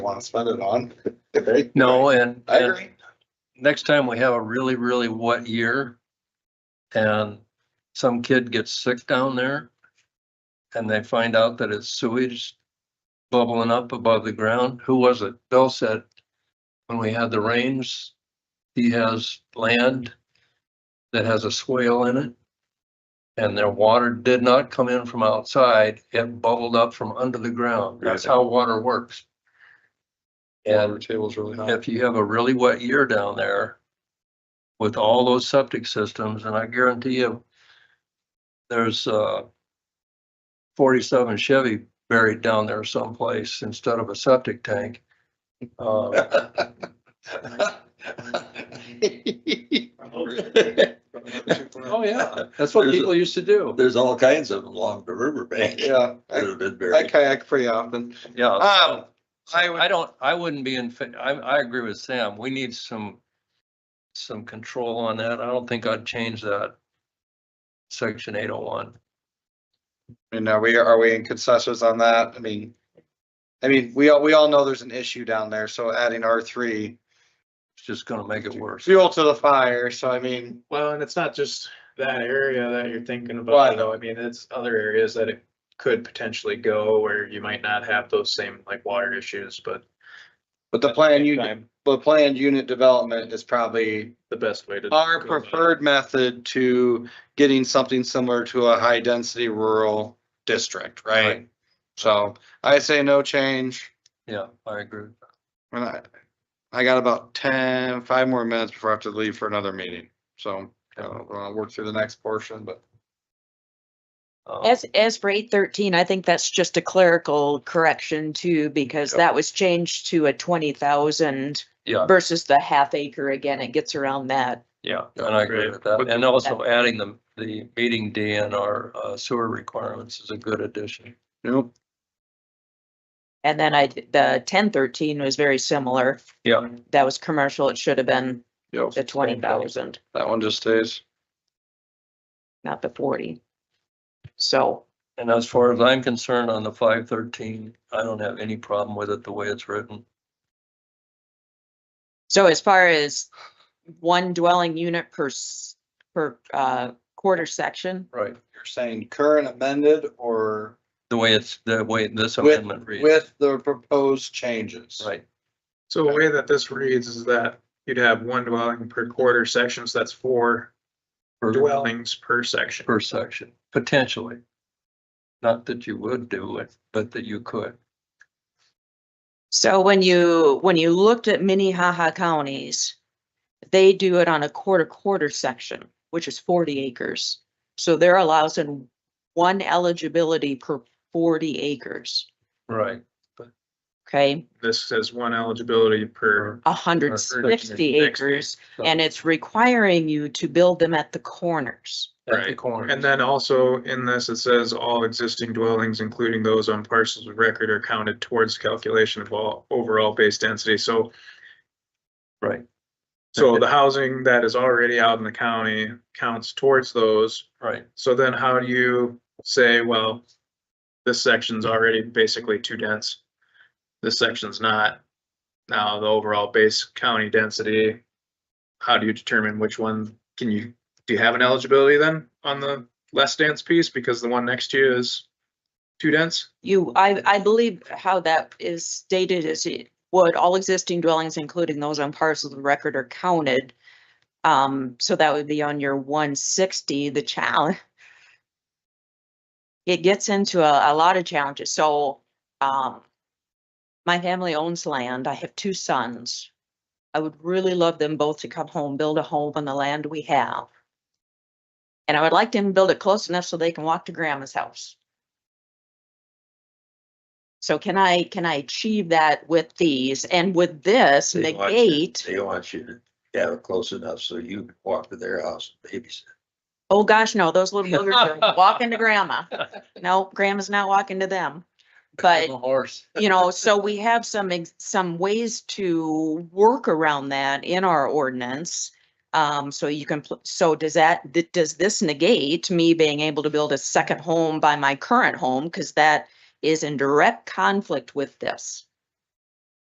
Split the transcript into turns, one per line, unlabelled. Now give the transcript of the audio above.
want to spend it on. right?
No, and,
I
and
agree.
next time we have a really, really wet year and some kid gets sick down there and they find out that it's sewage bubbling up above the ground, who was it? Bill said, when we had the rains, he has land that has a swale in it. And their water did not come in from outside. It bubbled up from under the ground. That's how water works. And
Water table's really high.
if you have a really wet year down there with all those septic systems, and I guarantee you, there's uh forty-seven Chevy buried down there someplace instead of a septic tank. Uh, Oh, yeah, that's what
There's a-
people used to do.
There's all kinds of them along the riverbank.
Yeah,
That
I
have been
I
buried.
kayak pretty often.
Yeah.
Um, I would-
I don't, I wouldn't be in, fa- I, I agree with Sam. We need some, some control on that. I don't think I'd change that. Section eight oh one.
And are we, are we in consensus on that? I mean, I mean, we all, we all know there's an issue down there, so adding R three
It's just gonna make it worse.
fuel to the fire, so I mean,
Well, and it's not just that area that you're thinking
Well, I
about, though. I mean, it's other areas that it could potentially go where you might not have those same like water issues, but.
but the
at
plan
same
you,
time,
but planned unit development is probably
The best way to.
our
go about it.
preferred method to getting something similar to a high density rural district, right?
Right.
So I say no change.
Yeah, I agree.
And I, I got about ten, five more minutes before I have to leave for another meeting. So I'll work through the next portion, but
Um,
As, as for eight thirteen, I think that's just a clerical correction too, because
Yep.
that was changed to a twenty thousand
Yeah,
versus the half acre again. It gets around that.
yeah, and I agree
Right.
with that. And also adding the, the meeting D in our uh, sewer requirements is a good addition.
nope.
And then I, the ten thirteen was very similar.
Yeah.
That was commercial. It should have been
Yep,
the twenty thousand,
that one just stays.
not the forty. So,
And as far as I'm concerned on the five thirteen, I don't have any problem with it the way it's written.
so as far as one dwelling unit per, s- per, uh, quarter section,
Right.
You're saying current amended or
The way it's, the way this
With-
amendment reads.
with the proposed changes?
Right,
So the way that this reads is that you'd have one dwelling per quarter section, so that's four
per,
dwellings per section.
per section, potentially. Not that you would do it, but that you could.
So when you, when you looked at Minnehaha counties, they do it on a quarter quarter section, which is forty acres. So they're allows in one eligibility per forty acres,
Right.
okay?
This says one eligibility per,
hundred sixty
160.
acres, and it's requiring you to build them at the corners.
At the
Right.
corner.
and then also in this, it says all existing dwellings, including those on parcels of record are counted towards calculation of all overall base density. So
Right,
So the housing that is already out in the county counts towards those.
right,
So then how do you say, well, this section's already basically too dense? This section's not. Now, the overall base county density, how do you determine which one can you, do you have an eligibility then on the less dense piece? Because the one next to you is too dense?
You, I, I believe how that is stated is it would all existing dwellings, including those on parcels of record are counted. Um, so that would be on your one sixty, the challenge. It gets into a, a lot of challenges, so, um. My family owns land, I have two sons. I would really love them both to come home, build a home on the land we have. And I would like them to build it close enough so they can walk to grandma's house. So can I, can I achieve that with these and with this
They want you-
negate?
They want you to have it close enough so you can walk to their house and babysit.
Oh, gosh, no, those little boogers are walking to grandma. No, grandma's not walking to them. But,
The horse.
you know, so we have some, ex- some ways to work around that in our ordinance. Um, so you can, pl- so does that, th- does this negate me being able to build a second home by my current home? Cause that is in direct conflict with this.